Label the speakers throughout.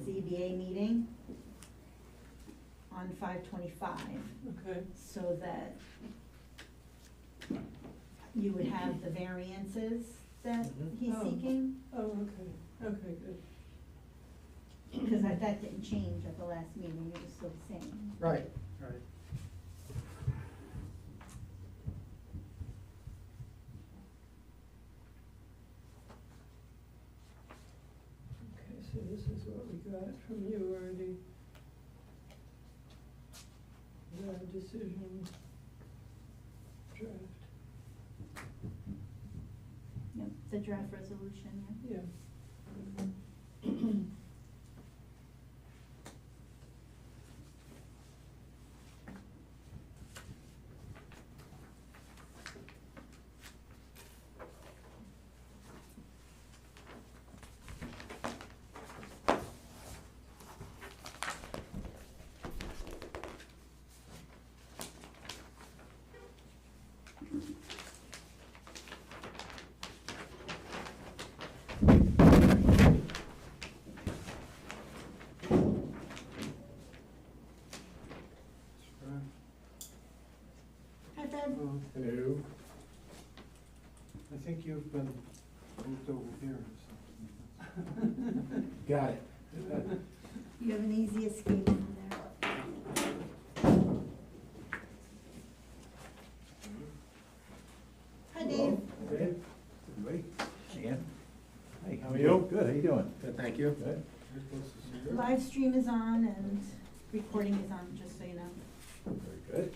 Speaker 1: ZBA meeting on five twenty-five,
Speaker 2: Okay,
Speaker 1: so that you would have the variances that
Speaker 3: Mhm.
Speaker 1: he's
Speaker 2: Oh.
Speaker 1: seeking,
Speaker 2: oh, okay, okay, good.
Speaker 1: because that, that didn't change at the last meeting, it was still the same.
Speaker 3: Right, right.
Speaker 2: Okay, so this is what we got from you already. The decision draft,
Speaker 1: Yep, the draft resolution, yeah.
Speaker 2: yeah.
Speaker 1: Hi, Fred.
Speaker 3: Well, Hello. I think you've been moved over here or something. Got it.
Speaker 1: You have an easy escape from there. Hi, Dave.
Speaker 3: Good,
Speaker 4: Everybody, Ann? Hey,
Speaker 3: How are you?
Speaker 4: Good, how you doing?
Speaker 3: thank you.
Speaker 4: Good.
Speaker 3: You're supposed to see her.
Speaker 1: Live stream is on and recording is on, just so you know.
Speaker 4: Very good.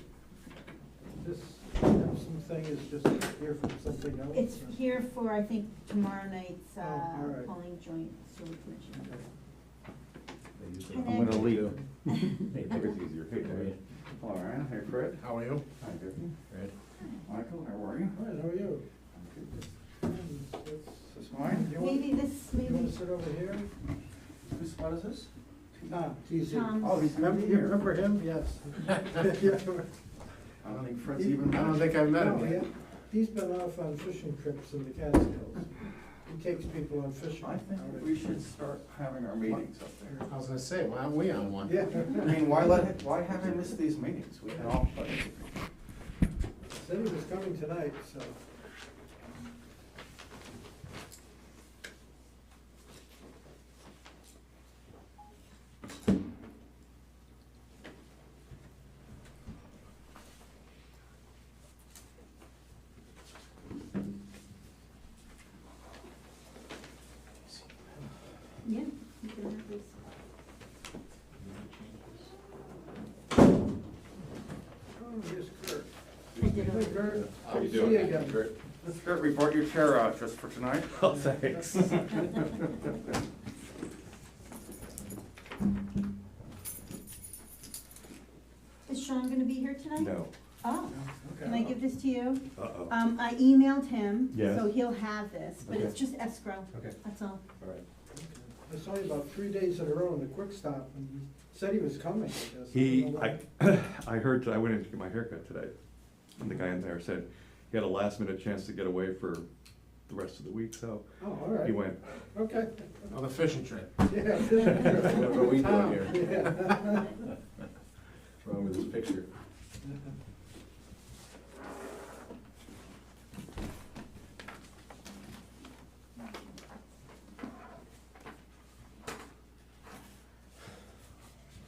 Speaker 3: This Epsom thing is just here from something else?
Speaker 1: It's
Speaker 3: or-
Speaker 1: here for, I think, tomorrow night's
Speaker 3: Oh, all
Speaker 1: uh,
Speaker 3: right.
Speaker 1: polling joint sewer commission.
Speaker 3: Okay.
Speaker 4: They usually-
Speaker 1: And then-
Speaker 5: Hey, Vicky's easier. Hey, Debbie. Hello, Ryan. Hey, Fred.
Speaker 4: How are you?
Speaker 5: Hi, Vicky.
Speaker 4: Good.
Speaker 5: Michael, how are you?
Speaker 3: All right, how are you?
Speaker 5: I'm good. Is
Speaker 3: This
Speaker 5: this mine?
Speaker 3: You want,
Speaker 1: Maybe this,
Speaker 3: you want
Speaker 1: maybe
Speaker 3: to sit over here?
Speaker 5: This, what is this?
Speaker 3: Ah, he's here.
Speaker 1: Tom's.
Speaker 5: Oh, he's-
Speaker 3: Remember, you remember him? Yes.
Speaker 5: I don't think Fred's even.
Speaker 4: I've
Speaker 3: No, he- He's been off on fishing trips in the Catskills. He takes people on fishing.
Speaker 5: I think
Speaker 3: out at-
Speaker 5: we should start having our meetings up there.
Speaker 6: I was gonna say, why aren't we on one?
Speaker 3: Yeah.
Speaker 5: I mean, why let, why have I missed these meetings? We can all participate.
Speaker 3: Said he was coming tonight, so.
Speaker 1: Yeah, you can have this.
Speaker 3: Oh, here's Kurt.
Speaker 1: I did
Speaker 3: Hey,
Speaker 1: it.
Speaker 3: Kurt.
Speaker 6: How you
Speaker 3: Good to
Speaker 6: doing?
Speaker 3: see you again.
Speaker 6: Kurt?
Speaker 5: Miss Fred, we brought your chair out just for tonight.
Speaker 4: Oh, thanks.
Speaker 1: Is Sean gonna be here tonight?
Speaker 4: No.
Speaker 1: Oh,
Speaker 3: Okay.
Speaker 1: can I give this to you?
Speaker 4: Uh-oh.
Speaker 1: Um, I emailed him,
Speaker 4: Yes.
Speaker 1: so he'll have this, but it's just escrow,
Speaker 4: Okay,
Speaker 1: that's all.
Speaker 4: all right.
Speaker 3: I saw you about three days in a row in the Quick Stop, and you said he was coming, I guess. I don't
Speaker 7: He,
Speaker 3: know why.
Speaker 7: I, I heard, I went in to get my haircut today, and the guy in there said he had a last minute chance to get away for the rest of the week, so
Speaker 3: Oh, all
Speaker 7: he
Speaker 3: right,
Speaker 7: went.
Speaker 3: okay.
Speaker 6: On the fishing trip.
Speaker 3: Yeah, fishing trip.
Speaker 6: What are we doing here?
Speaker 3: Yeah.
Speaker 6: What's wrong with this picture?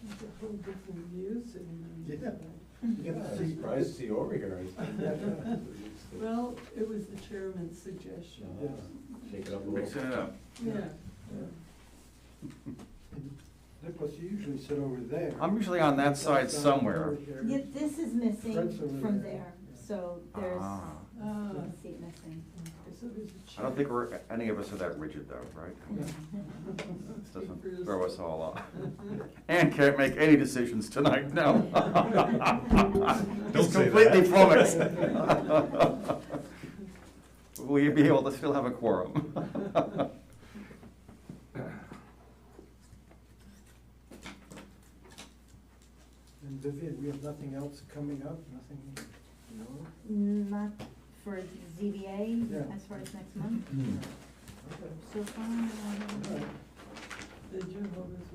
Speaker 2: There's a whole different views in
Speaker 3: Yeah.
Speaker 2: there.
Speaker 3: You
Speaker 4: I'm
Speaker 3: can see-
Speaker 4: Surprised to see you over here.
Speaker 3: Yeah.
Speaker 2: Well, it was the chairman's suggestion.
Speaker 3: Yeah.
Speaker 4: Shake it up a
Speaker 5: Mixing
Speaker 4: little.
Speaker 5: it up.
Speaker 2: Yeah.
Speaker 3: Nicholas, you usually sit over there.
Speaker 5: I'm usually on that side somewhere.
Speaker 1: Yeah, this is
Speaker 3: Fred's over
Speaker 1: missing from
Speaker 3: there.
Speaker 1: there, so there's,
Speaker 5: Ah.
Speaker 2: Ah,
Speaker 1: you can see it missing.
Speaker 2: so there's a chair.
Speaker 5: I don't think we're, any of us are that rigid though, right? This Doesn't throw us all off. And can't make any decisions tonight, no.
Speaker 7: Don't
Speaker 5: It's
Speaker 7: say
Speaker 5: completely
Speaker 7: that.
Speaker 5: flummoxed. Will you be able to still have a quorum?
Speaker 3: And Vivian, we have nothing else coming up, nothing, no?
Speaker 1: Not for ZBA,
Speaker 3: Yeah.
Speaker 1: as far as next month,
Speaker 3: Okay.
Speaker 1: so far. I don't know.
Speaker 3: All right.
Speaker 2: The Jehovah's